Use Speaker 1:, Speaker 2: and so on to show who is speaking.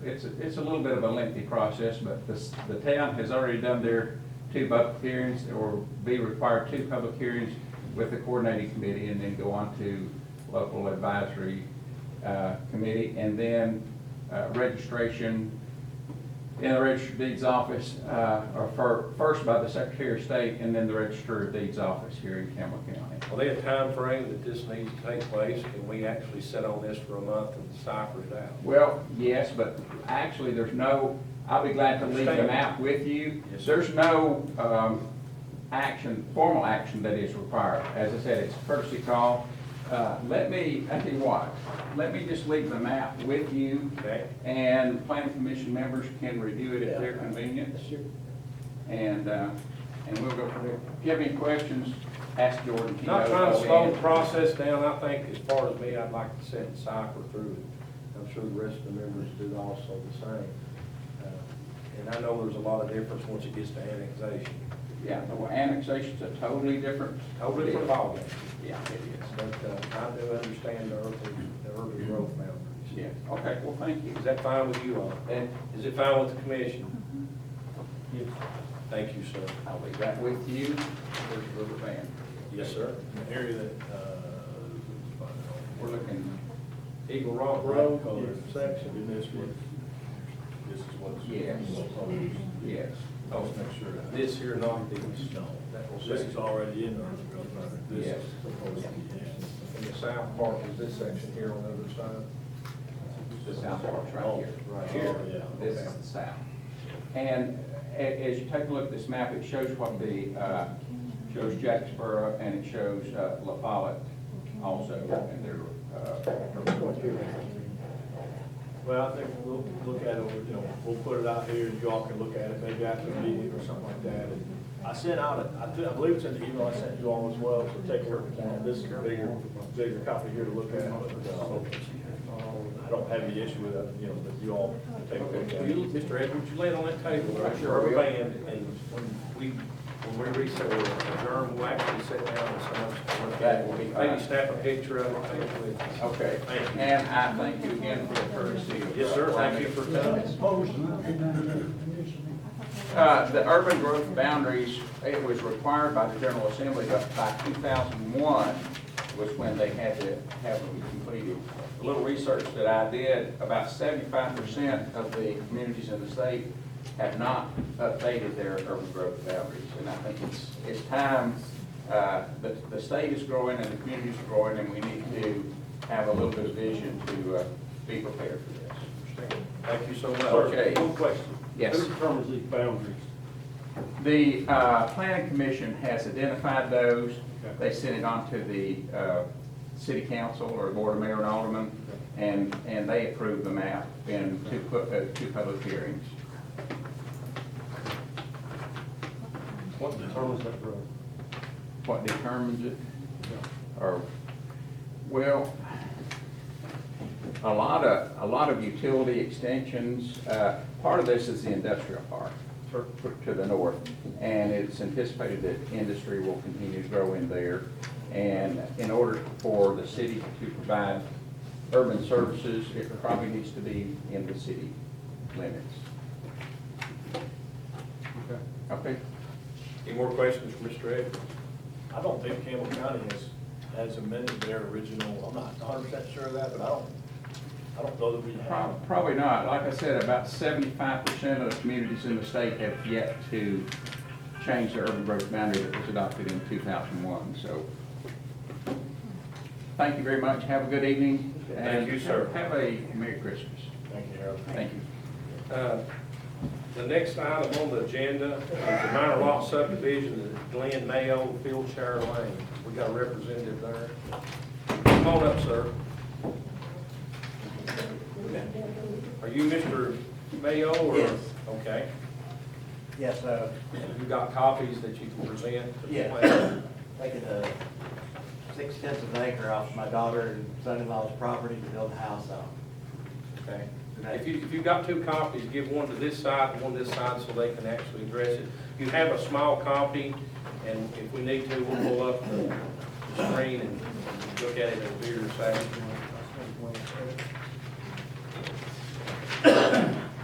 Speaker 1: It's, a- it's a little bit of a lengthy process, but the, s- the town has already done their two public hearings, or be required two public hearings with the coordinating committee, and then go on to local advisory, uh, committee, and then, uh, registration in the registered deeds office, uh, or fir- first by the Secretary of State, and then the register of deeds office here in Campbell County.
Speaker 2: Are there a time frame that this needs to take place? Can we actually sit on this for a month and cipher it out?
Speaker 1: Well, yes, but actually, there's no, I'll be glad to leave them out with you.
Speaker 2: Yes, sir.
Speaker 1: There's no um, action, formal action that is required. As I said, it's a courtesy call. Uh, Let me, I tell you what, let me just leave them out with you,
Speaker 2: Okay?
Speaker 1: and planning commission members can review it at their convenience. And, uh, and we'll go from there. If you have any questions, ask Jordan. He
Speaker 2: Not
Speaker 1: knows
Speaker 2: trying to
Speaker 1: all the
Speaker 2: slow the
Speaker 1: answers.
Speaker 2: process down, I think as far as me, I'd like to sit and cipher through it. I'm sure the rest of the members do also the same. Uh, And I know there's a lot of difference once it gets to annexation.
Speaker 1: Yeah, well, annexation's a totally different.
Speaker 2: Totally different ballgame.
Speaker 1: Yeah, it is.
Speaker 2: But uh, I do understand the urban, the urban growth boundaries.
Speaker 1: Yes, okay, well, thank you.
Speaker 2: Is that fine with you all? And is it fine with the commission? Thank you, sir.
Speaker 1: I'll leave that with you. There's a little band.
Speaker 2: Yes, sir.
Speaker 3: An area that, uh,
Speaker 1: We're looking,
Speaker 2: Eagle Rock Road,
Speaker 3: In this one, this is what's.
Speaker 1: Yes. yes.
Speaker 3: I'll just Oh, make sure. that-
Speaker 2: this here, not these.
Speaker 3: No.
Speaker 2: That will
Speaker 3: This
Speaker 2: say,
Speaker 3: is already in the urban growth boundary. This
Speaker 1: Yes.
Speaker 3: is proposed to be in.
Speaker 2: in the south part is this section here on the other side.
Speaker 1: The south part's right here.
Speaker 2: Oh, Right
Speaker 3: here.
Speaker 1: This is the south. And a- as you take a look at this map, it shows what the, uh, shows Jacksboro and it shows uh, La Follette also and their, uh,
Speaker 3: Well, I think we'll look at it, you know, we'll put it out here, and you all can look at it, maybe after the meeting or something like that. And I sent out, a- I thi- I believe it's in the email I sent you all as well, so take a look at that. This is a bigger, bigger copy here to look at, but, uh, I don't have any issue with it, you know, but you all can take a look at
Speaker 2: Will you,
Speaker 3: it.
Speaker 2: Mr. Edwards, you lay it on that table, right,
Speaker 1: Sure
Speaker 2: your
Speaker 1: will.
Speaker 2: band, and when we, when we reset, we'll adjourn, we'll actually sit down and some.
Speaker 1: That will be fine.
Speaker 2: Maybe snap a picture of it, take it with us.
Speaker 1: okay.
Speaker 2: Thank you.
Speaker 1: And I thank you again for the courtesy. of-
Speaker 2: Yes, sir, thank you for coming.
Speaker 1: Uh, The urban growth boundaries, it was required by the General Assembly that by 2001 was when they had to have them completed. A little research that I did, about 75% of the communities in the state have not updated their urban growth boundaries. And I think it's, it's time, uh, the the state is growing and the communities are growing, and we need to have a little bit of vision to uh, be prepared for this.
Speaker 2: Thank you so much.
Speaker 1: Okay.
Speaker 2: One question.
Speaker 1: Yes.
Speaker 2: Who determines these boundaries?
Speaker 1: The uh, planning commission has identified those. They sent it on to the uh, city council or board of mayor and alderman, and, and they approved the map in two, pu- uh, two public hearings.
Speaker 2: What determines that road?
Speaker 1: What determines it? Or, well, a lot of, a lot of utility extensions, uh, part of this is the industrial park to the north, and it's anticipated that industry will continue to grow in there. And in order for the city to provide urban services, it probably needs to be in the city limits. Okay?
Speaker 2: Any more questions for Mr. Edwards?
Speaker 3: I don't think Campbell County has, has amended their original, I'm not hundred percent sure of that, but I don't, I don't know that we have.
Speaker 1: Prob- Probably not. Like I said, about seventy-five percent of the communities in the state have yet to change their urban growth boundary that was adopted in two thousand one, so. Thank you very much. Have a good evening.
Speaker 2: Thank you,
Speaker 1: and
Speaker 2: sir.
Speaker 1: Have a Merry Christmas.
Speaker 3: Thank you, Harold.
Speaker 1: Thank you.
Speaker 2: Uh, The next item on the agenda is the minor lot subdivision of Glen Mayo, Fieldshire Lane. We got a representative there. Come on up, sir. Are you Mr. Mayo or?
Speaker 4: Yes.
Speaker 2: Okay.
Speaker 4: Yes, uh,
Speaker 2: You got copies that you can present? to the
Speaker 4: Yeah.
Speaker 2: planner?
Speaker 4: taking a six tenths of an acre off my daughter and son-in-law's property to build a house on.
Speaker 2: Okay. If you, if you've got two copies, give one to this side and one this side so they can actually address it. You have a small copy, and if we need to, we'll pull up the the screen and look at it in a bigger size.